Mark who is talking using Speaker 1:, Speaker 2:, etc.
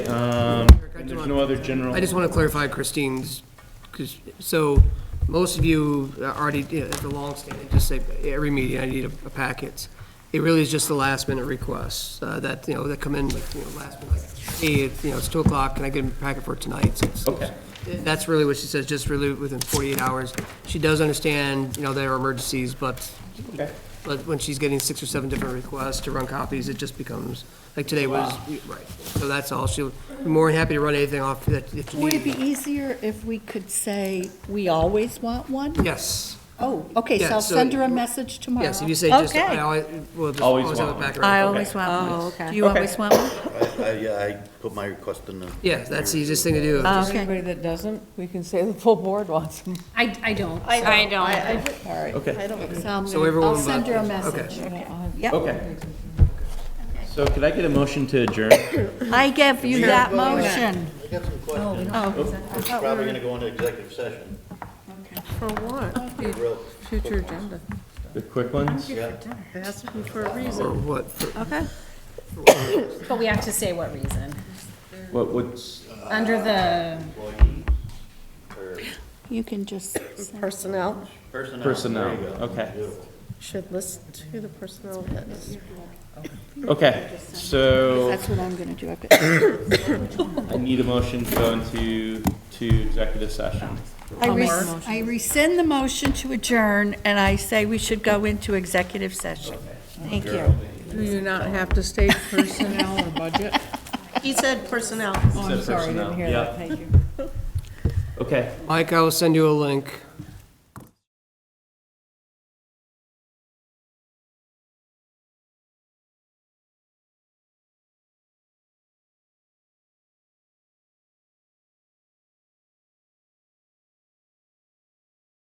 Speaker 1: Um, There's no other general.
Speaker 2: I just want to clarify Christine's, because, so, most of you already, you know, the long statement, just say, every meeting, I need a a packet. It really is just the last minute requests, uh, that, you know, that come in, like, you know, last minute, like, hey, you know, it's two o'clock, can I get a packet for tonight? So it's-
Speaker 1: Okay.
Speaker 2: That's really what she says, just really within forty-eight hours. She does understand, you know, there are emergencies, but,
Speaker 1: Okay.
Speaker 2: but when she's getting six or seven different requests to run copies, it just becomes, like, today was, right. So that's all, she'll be more than happy to run anything off that, if you
Speaker 3: Would it
Speaker 2: need.
Speaker 3: be easier if we could say, we always want one?
Speaker 2: Yes,
Speaker 3: Oh, okay, so
Speaker 2: Yeah,
Speaker 3: I'll
Speaker 2: so-
Speaker 3: send her a message tomorrow.
Speaker 2: yes, if you say just, I
Speaker 3: Okay.
Speaker 2: always, we'll just
Speaker 1: Always
Speaker 2: always have
Speaker 1: want
Speaker 2: it back
Speaker 1: one.
Speaker 4: I
Speaker 2: around.
Speaker 4: always want one.
Speaker 3: Oh, okay.
Speaker 4: Do you
Speaker 1: Okay.
Speaker 4: always want one?
Speaker 5: I, I- yeah, I put my request in the.
Speaker 2: Yeah, that's the easiest thing to do.
Speaker 4: Oh,
Speaker 6: Is there
Speaker 4: Okay.
Speaker 6: Anybody that doesn't, we can say the full board wants them.
Speaker 7: I, I don't. I um, don't.
Speaker 6: All right.
Speaker 1: Okay.
Speaker 6: I don't,
Speaker 3: So I'm
Speaker 2: So
Speaker 3: gonna,
Speaker 2: everyone
Speaker 3: I'll send
Speaker 2: but-
Speaker 3: her a
Speaker 2: okay.
Speaker 3: message.
Speaker 4: Yep.
Speaker 1: Okay. So could I get a motion to adjourn?
Speaker 4: I give you that
Speaker 5: Well, we-
Speaker 4: motion.
Speaker 5: I got some questions.
Speaker 4: Oh,
Speaker 5: It's probably gonna go into executive session,
Speaker 6: for what?
Speaker 5: a real
Speaker 6: Future agenda.
Speaker 1: The quick ones?
Speaker 2: Or
Speaker 3: Um,
Speaker 2: what,
Speaker 4: okay.
Speaker 7: But we have to say what reason.
Speaker 1: What, what's,
Speaker 7: Under the,
Speaker 5: employee or
Speaker 3: You can just,
Speaker 8: Personnel,
Speaker 5: personnel.
Speaker 1: Personnel,
Speaker 5: There you go.
Speaker 1: okay.
Speaker 5: Beautiful.
Speaker 8: should list who the personnel is.
Speaker 1: okay, so
Speaker 3: that's what I'm gonna do. I've got-
Speaker 1: I need a motion to go into, to executive session.
Speaker 3: I res- I rescind the motion to adjourn, and I say we should go into executive session.
Speaker 4: Thank you.
Speaker 6: Do you not have to state personnel or budget?
Speaker 8: He said personnel.
Speaker 6: Oh, I'm sorry, I didn't hear that, thank you.
Speaker 1: Okay,
Speaker 2: Mike, I will send you a link.